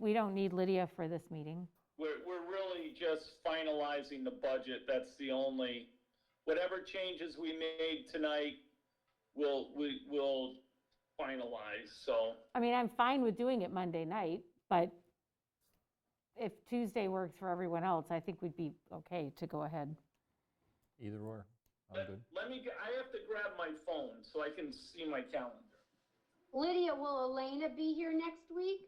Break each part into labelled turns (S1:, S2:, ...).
S1: we don't need Lydia for this meeting.
S2: We're, we're really just finalizing the budget, that's the only, whatever changes we made tonight, we'll, we, we'll finalize, so.
S1: I mean, I'm fine with doing it Monday night, but if Tuesday works for everyone else, I think we'd be okay to go ahead.
S3: Either or, I'm
S2: Let,
S3: good.
S2: let me, g- I have to grab my phone so I can see my calendar.
S4: Lydia, will Elena be here next week?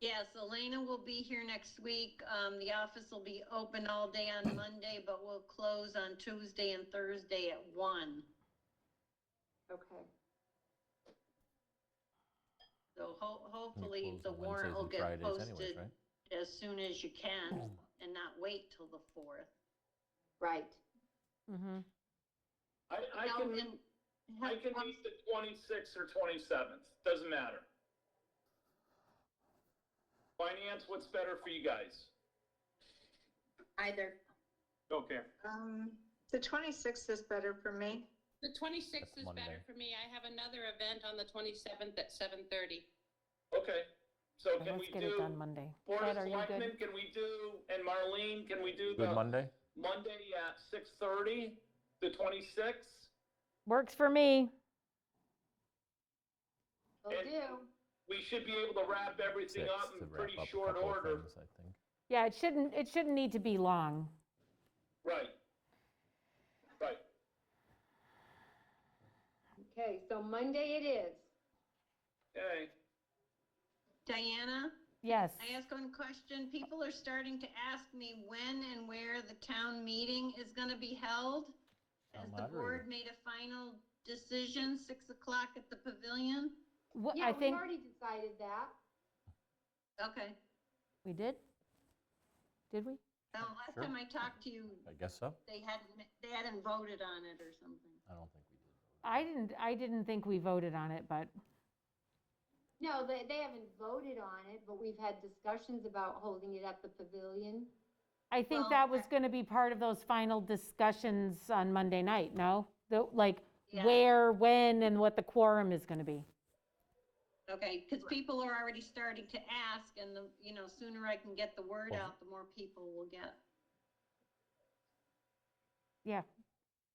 S5: Yes, Elena will be here next week. Um, the office will be open all day on Monday, but we'll close on Tuesday and Thursday at one.
S4: Okay.
S5: So ho-
S3: We
S5: hopefully
S3: close
S5: the
S3: on
S5: warrant
S3: Wednesdays
S5: will
S3: and
S5: get
S3: Fridays anyways,
S5: posted
S3: right?
S5: as soon as you can and not wait till the fourth.
S4: Right.
S1: Mhm.
S2: I, I
S5: Now,
S2: can,
S5: and-
S2: I can meet the twenty-sixth or twenty-seventh, doesn't matter. Finance, what's better for you guys?
S6: Either.
S2: Okay.
S7: Um, the 26th is better for me.
S6: The 26th
S3: That's
S6: is
S3: Monday.
S6: better for me. I have another event on the 27th at 7:30.
S2: Okay, so
S1: So
S2: can we
S1: Let's
S2: do?
S1: get it done Monday.
S2: Board
S1: Ted,
S2: of
S1: are you
S2: Selectmen,
S1: good?
S2: can we do, and Marlene, can we do
S3: Good
S2: the
S3: Monday?
S2: Monday at six thirty, the twenty-sixth?
S1: Works for me.
S4: Will
S2: And-
S4: do.
S2: We should be able to wrap everything
S3: Six
S2: up
S3: to
S2: in
S3: wrap
S2: pretty
S3: up a
S2: short
S3: couple of
S2: order.
S3: things, I think.
S1: Yeah, it shouldn't, it shouldn't need to be long.
S2: Right. Right.
S4: Okay, so Monday it is.
S2: Okay.
S5: Diana,
S1: Yes.
S5: I ask one question. People are starting to ask me when and where the town meeting is going to be held.
S3: Town
S5: Has the
S3: moderator.
S5: board made a final decision, 6 o'clock at the pavilion?
S1: Wha-
S4: Yeah,
S1: I
S4: we
S1: think,
S4: already decided that.
S5: Okay.
S1: we did? Did we?
S5: Now, last
S3: Sure.
S5: time I talked to you,
S3: I guess so.
S5: they hadn't, they hadn't voted on it or something.
S3: I don't think we did.
S1: I didn't, I didn't think we voted on it, but
S4: No, they, they haven't voted on it, but we've had discussions about holding it at the pavilion.
S1: I think
S5: Well,
S1: that was going to be part of those final discussions on Monday night, no? The, like,
S5: Yeah.
S1: where, when, and what the quorum is going to be.
S5: Okay, because people are already starting to ask and the, you know, sooner I can get the word
S3: Well-
S5: out, the more people will get.
S1: Yeah.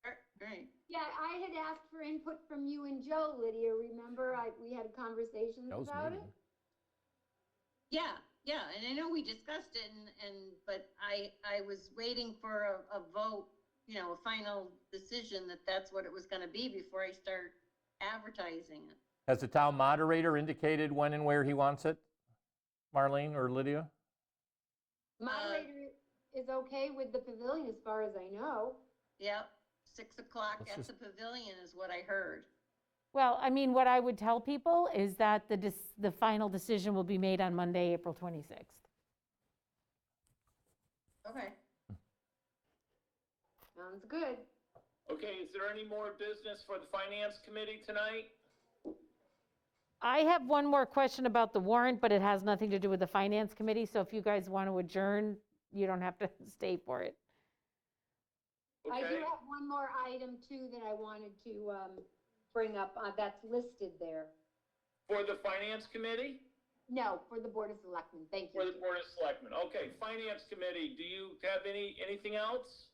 S5: All right.
S4: Yeah, I had asked for input from you and Joe, Lydia, remember? I, we had conversations
S3: Joe's
S4: about it?
S3: meeting.
S5: Yeah, yeah, and I know we discussed it and, and, but I, I was waiting for a, a vote, you know, a final decision that that's what it was gonna be before I start advertising it.
S3: Has the town moderator indicated when and where he wants it? Marlene or Lydia?
S5: Uh,
S4: Moderator is okay with the pavilion as far as I know.
S5: Yep, six o'clock
S3: Let's
S5: at
S3: just-
S5: the pavilion is what I heard.
S1: Well, I mean, what I would tell people is that the, dis- the final decision will be made on Monday, April 26th.
S5: Okay.
S4: Sounds good.
S2: Okay, is there any more business for the finance committee tonight?
S1: I have one more question about the warrant, but it has nothing to do with the finance committee, so if you guys want to adjourn, you don't have to stay for it.
S4: I do
S2: Okay,
S4: have one more item too that I wanted to, um, bring up, uh, that's listed there.
S2: for the finance committee,
S4: No, for the Board of Selectmen, thank
S2: for the
S4: you.
S2: board of selectmen? Okay, finance committee, do you have any, anything else?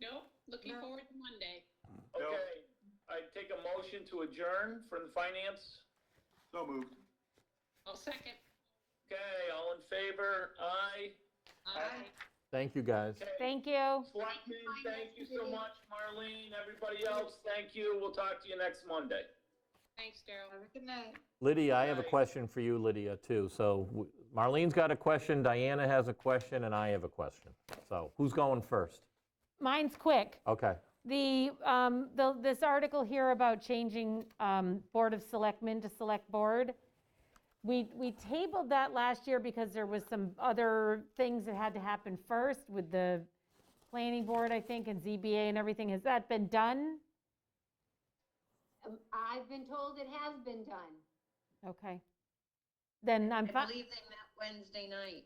S6: No, looking
S5: No.
S6: forward to Monday.
S2: Okay, I take a motion to adjourn from the finance.
S8: So moved.
S6: I'll second.
S2: Okay, all in favor? Aye.
S6: Aye.
S3: Thank you, guys.
S2: Okay.
S1: Thank you.
S2: Selectmen, thank you so much, Marlene, everybody else, thank you. We'll talk to you next Monday.
S6: Thanks, Daryl.
S7: Have a good night.
S3: Lydia, I have a
S2: Right.
S3: question for you, Lydia, too. So w- Marlene's got a question, Diana has a question, and I have a question. So who's going first?
S1: Mine's quick.
S3: Okay.
S1: The, um, the, this article here about changing, um, Board of Selectmen to Select Board, we, we tabled that last year because there was some other things that had to happen first with the planning board, I think, and ZBA and everything. Has that been done?
S4: Um, I've been told it has been done.
S1: Okay. Then I'm
S5: I
S1: fine,
S5: believe they met Wednesday night.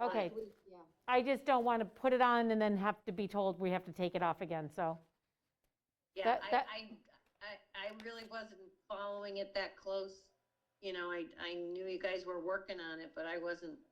S4: last
S1: okay.
S4: week, Yeah.
S1: I just don't want to put it on and then have to be told we have to take it off again, so.
S5: Yeah,
S1: That-
S5: I,
S1: that-
S5: I, I, I really wasn't following it that close. You know, I, I knew you guys were working on it, but I wasn't